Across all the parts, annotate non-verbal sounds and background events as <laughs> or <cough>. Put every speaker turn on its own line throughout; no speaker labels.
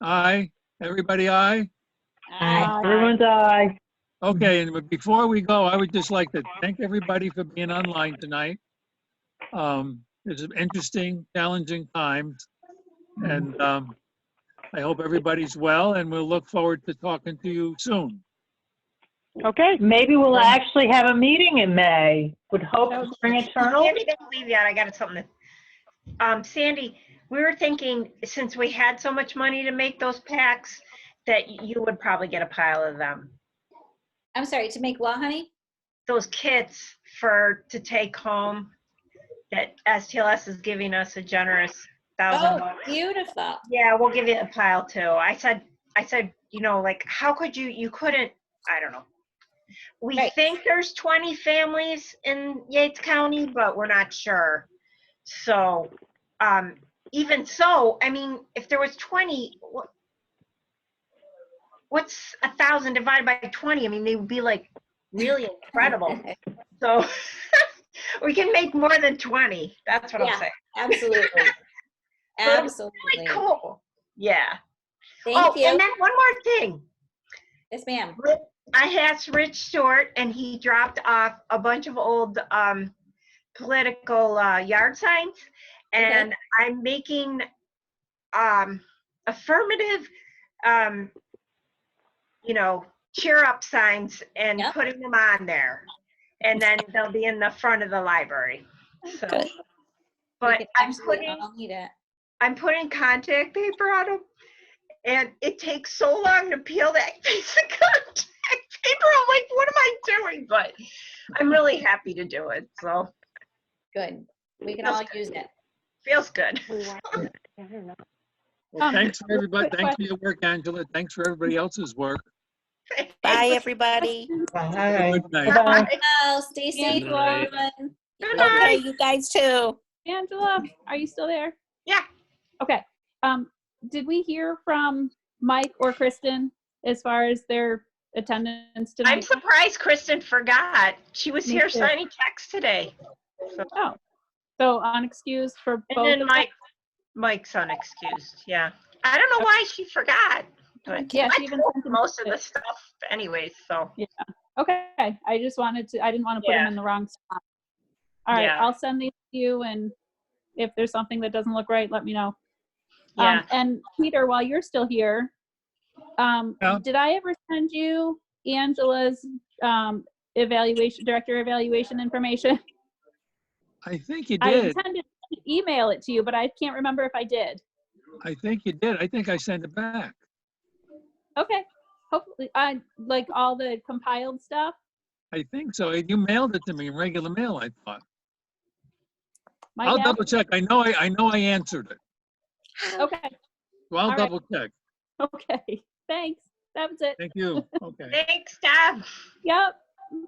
Aye. Everybody aye?
Uh,
Aye.
Everyone's aye.
Okay, and but before we go, I would just like to thank everybody for being online tonight. Um, It's an interesting, challenging times. And um, I hope everybody's well and we'll look forward to talking to you soon.
Okay,
Maybe we'll actually have a meeting in May. Would hope
No,
spring eternal.
Sandy, don't leave yet. I got something. to- Um, Sandy, we were thinking, since we had so much money to make those packs, that you would probably get a pile of them.
I'm sorry, to make what, honey?
Those kits for, to take home that STLS is giving us a generous thousand.
Oh,
dollars.
beautiful.
Yeah, we'll give you a pile too. I said, I said, you know, like, how could you, you couldn't, I don't know. We
Right.
think there's 20 families in Yates County, but we're not sure. So, um, even so, I mean, if there was 20, what- what's a thousand divided by 20? I mean, they would be like really
<laughs>
incredible. So <laughs> we can make more than 20. That's what
Yeah.
I'm saying. <laughs>
Absolutely. Absolutely.
Really cool. Yeah.
Thank
Oh, and
you.
then one more thing.
Yes, ma'am.
I asked Rich Short and he dropped off a bunch of old um, political uh, yard signs. And I'm making um, affirmative, um, you know, cheer up signs and
Yep.
putting them on there. And then they'll be in the front of the library. So,
Good.
but
We can
I'm
absolutely
putting
all Need it.
I'm putting contact paper on them, and it takes so long to peel that <laughs> piece of contact paper. I'm like, what am I doing? But I'm really happy to do it, so
Good. We can
That's
all use it.
feels good. <laughs>
Well,
Um,
Thanks for everybody,
quick
thanks for your work, Angela. Thanks for everybody else's work.
Bye, everybody.
Bye.
Good night.
Bye.
Oh, stay safe,
Good night.
everyone.
Good
Okay,
night.
you guys too.
Angela, are you still there?
Yeah.
Okay, um, did we hear from Mike or Kristen as far as their attendance
I'm
tonight?
surprised Kristen forgot. She was
Me
here
too.
signing checks today.
Oh, so unexcused for
And
both?
then
of
Mike, Mike's unexcused, yeah. I don't know why she forgot,
them?
but
Yeah,
I
she even
told
sent them-
most of the stuff anyways, so.
Okay, I just wanted to, I didn't want to put them
Yeah.
in the wrong spot. All right,
Yeah.
I'll send these to you and if there's something that doesn't look right, let me know.
Yeah,
Um, and Peter, while you're still here, um,
Yeah.
did I ever send you Angela's um, evaluation, director evaluation information?
I think you
I
did.
intended to email it to you, but I can't remember if I did.
I think you did. I think I sent it back.
Okay, hopefully, I like all the compiled stuff.
I think so. You mailed it to me in regular mail, I thought.
My
I'll
bad.
double check. I know, I, I know I answered it.
Okay, <laughs>
So
All
I'll
right.
double check.
okay, thanks. That was it.
Thank you. Okay.
thanks, Deb.
Yep,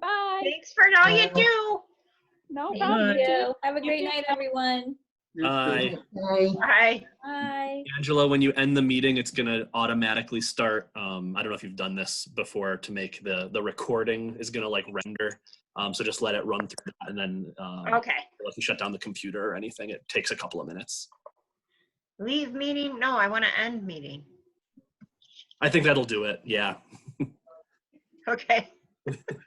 bye.
Thanks for all you
Uh,
do.
No
Thank
problem.
you. Have a
You
great
too.
night, everyone.
You too.
Aye.
Bye.
Bye.
Angela, when you end the meeting, it's gonna automatically start, um, I don't know if you've done this before to make the, the recording is gonna like render. Um, so just let it run through that and then, um,
Okay.
if you shut down the computer or anything, it takes a couple of minutes.
Leave meeting? No, I want to end meeting.
I think that'll do it, yeah.
Okay.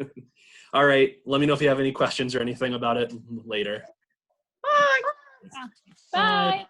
<laughs>
All right, let me know if
Oh,
you have any questions or anything about it later.
Bye.
Bye.